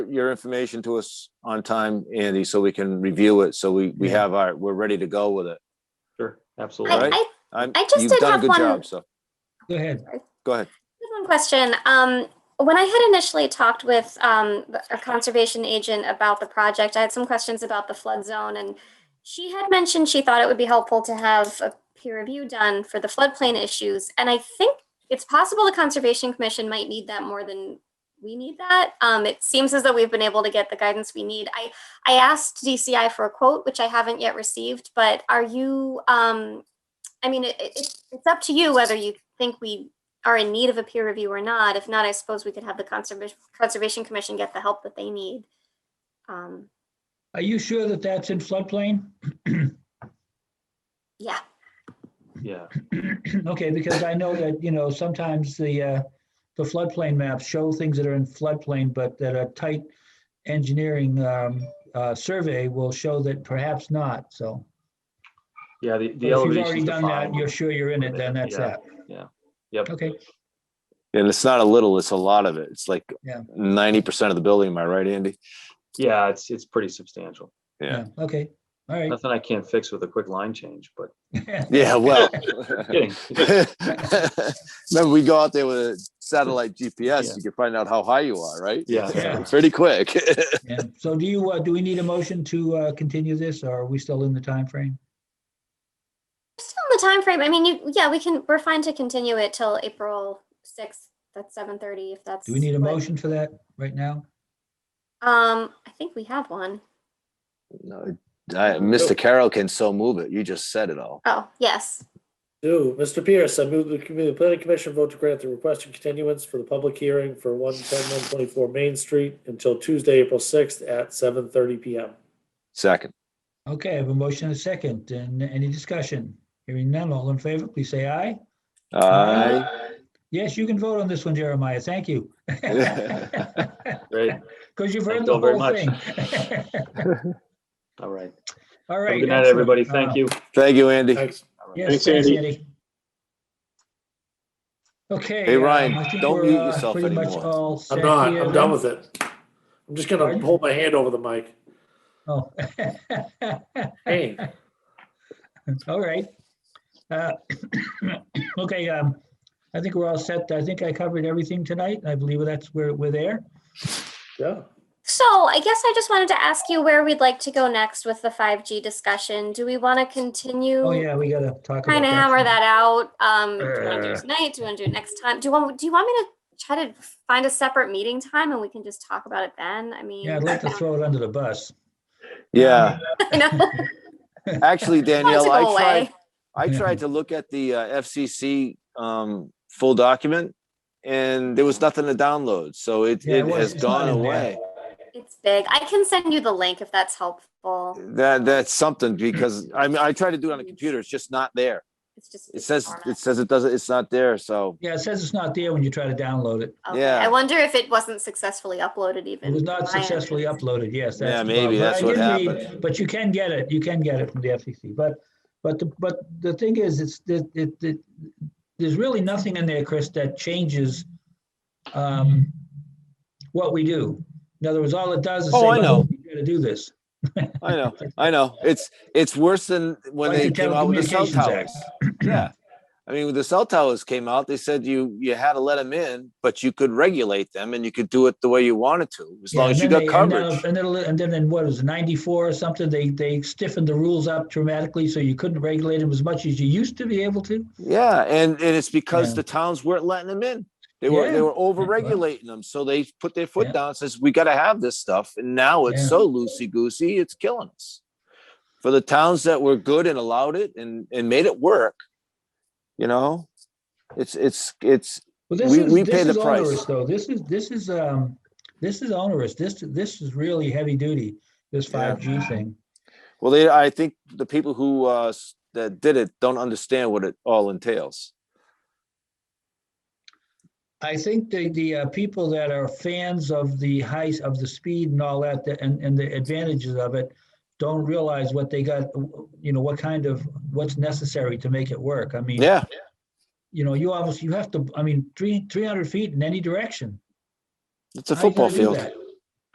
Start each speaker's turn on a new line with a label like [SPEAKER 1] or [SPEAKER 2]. [SPEAKER 1] your information to us on time, Andy, so we can review it, so we, we
[SPEAKER 2] Yeah.
[SPEAKER 1] have our, we're ready to go with it.
[SPEAKER 3] Sure,
[SPEAKER 1] All
[SPEAKER 3] absolutely.
[SPEAKER 1] right.
[SPEAKER 4] I,
[SPEAKER 1] I'm-
[SPEAKER 4] I just
[SPEAKER 1] you've
[SPEAKER 4] did
[SPEAKER 1] done a
[SPEAKER 4] have
[SPEAKER 1] good
[SPEAKER 4] one-
[SPEAKER 1] job, So,
[SPEAKER 2] Go ahead.
[SPEAKER 1] go ahead.
[SPEAKER 4] I have one question. Um, when I had initially talked with um, the- a conservation agent about the project, I had some questions about the flood zone, and she had mentioned she thought it would be helpful to have a peer review done for the floodplain issues. And I think it's possible the Conservation Commission might need that more than we need that. Um, it seems as though we've been able to get the guidance we need. I, I asked DCI for a quote, which I haven't yet received, but are you, um, I mean, it, it, it's up to you whether you think we are in need of a peer review or not. If not, I suppose we could have the conservation conservation commission get the help that they need. Um,
[SPEAKER 2] Are you sure that that's in floodplain?
[SPEAKER 4] yeah,
[SPEAKER 3] Yeah,
[SPEAKER 2] Okay, because I know that, you know, sometimes the, uh, the floodplain maps show things that are in floodplain, but that a tight engineering, um, uh, survey will show that perhaps not, so.
[SPEAKER 3] yeah, the, the
[SPEAKER 2] If you've
[SPEAKER 3] elevation's
[SPEAKER 2] already done that, and
[SPEAKER 3] defined.
[SPEAKER 2] you're sure you're in it, then that's
[SPEAKER 3] Yeah.
[SPEAKER 2] that.
[SPEAKER 3] Yep,
[SPEAKER 2] Okay,
[SPEAKER 1] And it's not a little, it's a lot of it. It's like
[SPEAKER 2] Yeah.
[SPEAKER 1] ninety percent of the building, am I right, Andy?
[SPEAKER 3] yeah, it's, it's pretty substantial.
[SPEAKER 1] Yeah.
[SPEAKER 2] yeah, okay, all right.
[SPEAKER 3] Nothing I can't fix with a quick line change, but
[SPEAKER 1] Yeah, well.
[SPEAKER 3] kidding.
[SPEAKER 1] Remember, we go out there with a satellite
[SPEAKER 3] Yeah.
[SPEAKER 1] GPS, you can find out how high you are, right?
[SPEAKER 3] Yeah,
[SPEAKER 2] Yeah.
[SPEAKER 1] Pretty quick.
[SPEAKER 2] Yeah. So do you, uh, do we need a motion to, uh, continue this, or are we still in the time frame?
[SPEAKER 4] still in the time frame. I mean, you, yeah, we can. We're fine to continue it till April sixth. That's seven thirty. If that's
[SPEAKER 2] Do we need a
[SPEAKER 4] what-
[SPEAKER 2] motion for that right now?
[SPEAKER 4] Um, I think we have one.
[SPEAKER 1] No, I- Mr. Carroll can so move it. You just said it all.
[SPEAKER 4] Oh, yes.
[SPEAKER 5] Do, Mr. Pierce, I move the commu- the planning commission vote to grant the requested continuance for the public hearing for one ten one twenty-four Main Street until Tuesday, April sixth at seven thirty PM.
[SPEAKER 1] Second,
[SPEAKER 2] Okay, I have a motion and a second, and any discussion? Hearing none, all in favor, please say aye.
[SPEAKER 1] I,
[SPEAKER 2] Uh, Yes, you can vote on this one, Jeremiah, thank you. Because
[SPEAKER 3] great,
[SPEAKER 2] you've
[SPEAKER 3] Thank
[SPEAKER 2] heard the
[SPEAKER 3] you very
[SPEAKER 2] whole
[SPEAKER 3] much.
[SPEAKER 2] thing.
[SPEAKER 3] all right.
[SPEAKER 2] All
[SPEAKER 3] Have
[SPEAKER 2] right. Uh,
[SPEAKER 3] a Good night, everybody, thank you.
[SPEAKER 1] thank you, Andy.
[SPEAKER 5] Thanks.
[SPEAKER 2] Yes,
[SPEAKER 5] Thanks,
[SPEAKER 2] thanks,
[SPEAKER 5] Andy.
[SPEAKER 2] Andy. Okay.
[SPEAKER 1] Hey,
[SPEAKER 2] um,
[SPEAKER 1] Ryan,
[SPEAKER 2] I think
[SPEAKER 1] don't
[SPEAKER 2] we're,
[SPEAKER 1] mute
[SPEAKER 2] uh,
[SPEAKER 1] yourself
[SPEAKER 2] pretty much
[SPEAKER 1] anymore.
[SPEAKER 2] all set
[SPEAKER 5] I'm not,
[SPEAKER 2] here
[SPEAKER 5] I'm
[SPEAKER 2] then.
[SPEAKER 5] done with it. I'm just
[SPEAKER 2] Pardon?
[SPEAKER 5] gonna hold my hand over the mic.
[SPEAKER 2] Oh.
[SPEAKER 5] Hey,
[SPEAKER 2] All right. Uh, Okay, um, I think we're all set. I think I covered everything tonight. I believe that's where we're there.
[SPEAKER 5] yeah.
[SPEAKER 4] So I guess I just wanted to ask you where we'd like to go next with the five G discussion. Do we want to continue?
[SPEAKER 2] Oh, yeah, we gotta talk about that.
[SPEAKER 4] Kind of hammer Mm-hmm. that out. Um, do you want to do
[SPEAKER 2] Uh.
[SPEAKER 4] it tonight? Do you want to do it next time? Do you want, do you want me to try to find a separate meeting time and we can just talk about it then? I mean.
[SPEAKER 2] Yeah, I'd like to throw it under the bus.
[SPEAKER 1] Yeah,
[SPEAKER 2] Um,
[SPEAKER 4] I know.
[SPEAKER 1] actually,
[SPEAKER 4] Wants
[SPEAKER 1] Danielle,
[SPEAKER 4] to
[SPEAKER 1] I
[SPEAKER 4] go
[SPEAKER 1] tried,
[SPEAKER 4] away.
[SPEAKER 1] I
[SPEAKER 2] Yeah.
[SPEAKER 1] tried to look at the uh, FCC um, full document and there was nothing to download. So it,
[SPEAKER 2] Yeah, it
[SPEAKER 1] it
[SPEAKER 2] was-
[SPEAKER 1] has
[SPEAKER 2] it's not
[SPEAKER 1] gone
[SPEAKER 2] in there.
[SPEAKER 1] away.
[SPEAKER 4] It's big. I can send you the link if that's helpful.
[SPEAKER 1] That, that's something because I mean, I tried to do it on a computer. It's just not there.
[SPEAKER 4] It's just.
[SPEAKER 1] It says,
[SPEAKER 4] format.
[SPEAKER 1] it says it doesn't, it's not there. So
[SPEAKER 2] Yeah, it says it's not there when you try to download it.
[SPEAKER 4] Okay,
[SPEAKER 1] yeah.
[SPEAKER 4] I wonder if it wasn't successfully uploaded even.
[SPEAKER 2] It was not
[SPEAKER 4] from my end.
[SPEAKER 2] successfully uploaded, yes.
[SPEAKER 1] Yeah,
[SPEAKER 2] that's the
[SPEAKER 1] maybe
[SPEAKER 2] problem. But
[SPEAKER 1] that's
[SPEAKER 2] I
[SPEAKER 1] what
[SPEAKER 2] did read- But you can get it, you can get it from the FCC, but, but, the but the thing is, it's, that it, it, there's really nothing in there, Chris, that changes um, what we do. In other words, all it does is say,
[SPEAKER 1] Oh, I know.
[SPEAKER 2] "Look, you gotta do this.
[SPEAKER 1] I know, I know. It's, it's worse than when
[SPEAKER 2] Like
[SPEAKER 1] they
[SPEAKER 2] the
[SPEAKER 1] came out with the cell
[SPEAKER 2] Telecommunications
[SPEAKER 1] towers.
[SPEAKER 2] Act.
[SPEAKER 1] Yeah. I mean, when the cell towers came out, they said you, you had to let them in, but you could regulate them and you could do it the way you wanted to, as
[SPEAKER 2] Yeah,
[SPEAKER 1] long
[SPEAKER 2] and
[SPEAKER 1] as you got
[SPEAKER 2] then they- and then-
[SPEAKER 1] coverage.
[SPEAKER 2] And then, and then in what, it was ninety-four or something, they, they stiffened the rules up dramatically, so you couldn't regulate them as much as you used to be able to.
[SPEAKER 1] Yeah, and, and it's
[SPEAKER 2] Yeah.
[SPEAKER 1] because the towns weren't letting them in. They were,
[SPEAKER 2] Yeah.
[SPEAKER 1] they were over regulating them. So they put their
[SPEAKER 2] Yeah.
[SPEAKER 1] foot down, and says, we gotta have this stuff. And now
[SPEAKER 2] Yeah.
[SPEAKER 1] it's so loosey goosey, it's killing us. For the towns that were good and allowed it and, and made it work, you know? It's, it's, it's,
[SPEAKER 2] Well, this
[SPEAKER 1] We-
[SPEAKER 2] is,
[SPEAKER 1] we
[SPEAKER 2] this
[SPEAKER 1] pay the
[SPEAKER 2] is
[SPEAKER 1] price.
[SPEAKER 2] onerous, though. This is, this is, um, this is onerous. This, this is really heavy duty, this
[SPEAKER 1] Yeah.
[SPEAKER 2] five G thing.
[SPEAKER 1] Well, they, I think the people who, uh, s- that did it don't understand what it all entails.
[SPEAKER 2] I think the, the, uh, people that are fans of the height, of the speed and all that, the- and, and the advantages of it, don't realize what they got, you know, what kind of, what's necessary to make it work. I mean,
[SPEAKER 1] Yeah,
[SPEAKER 2] you know, you obviously, you have to, I mean, three, three hundred feet in any direction.
[SPEAKER 1] it's a
[SPEAKER 2] How you
[SPEAKER 1] football
[SPEAKER 2] gonna do
[SPEAKER 1] field.
[SPEAKER 2] that?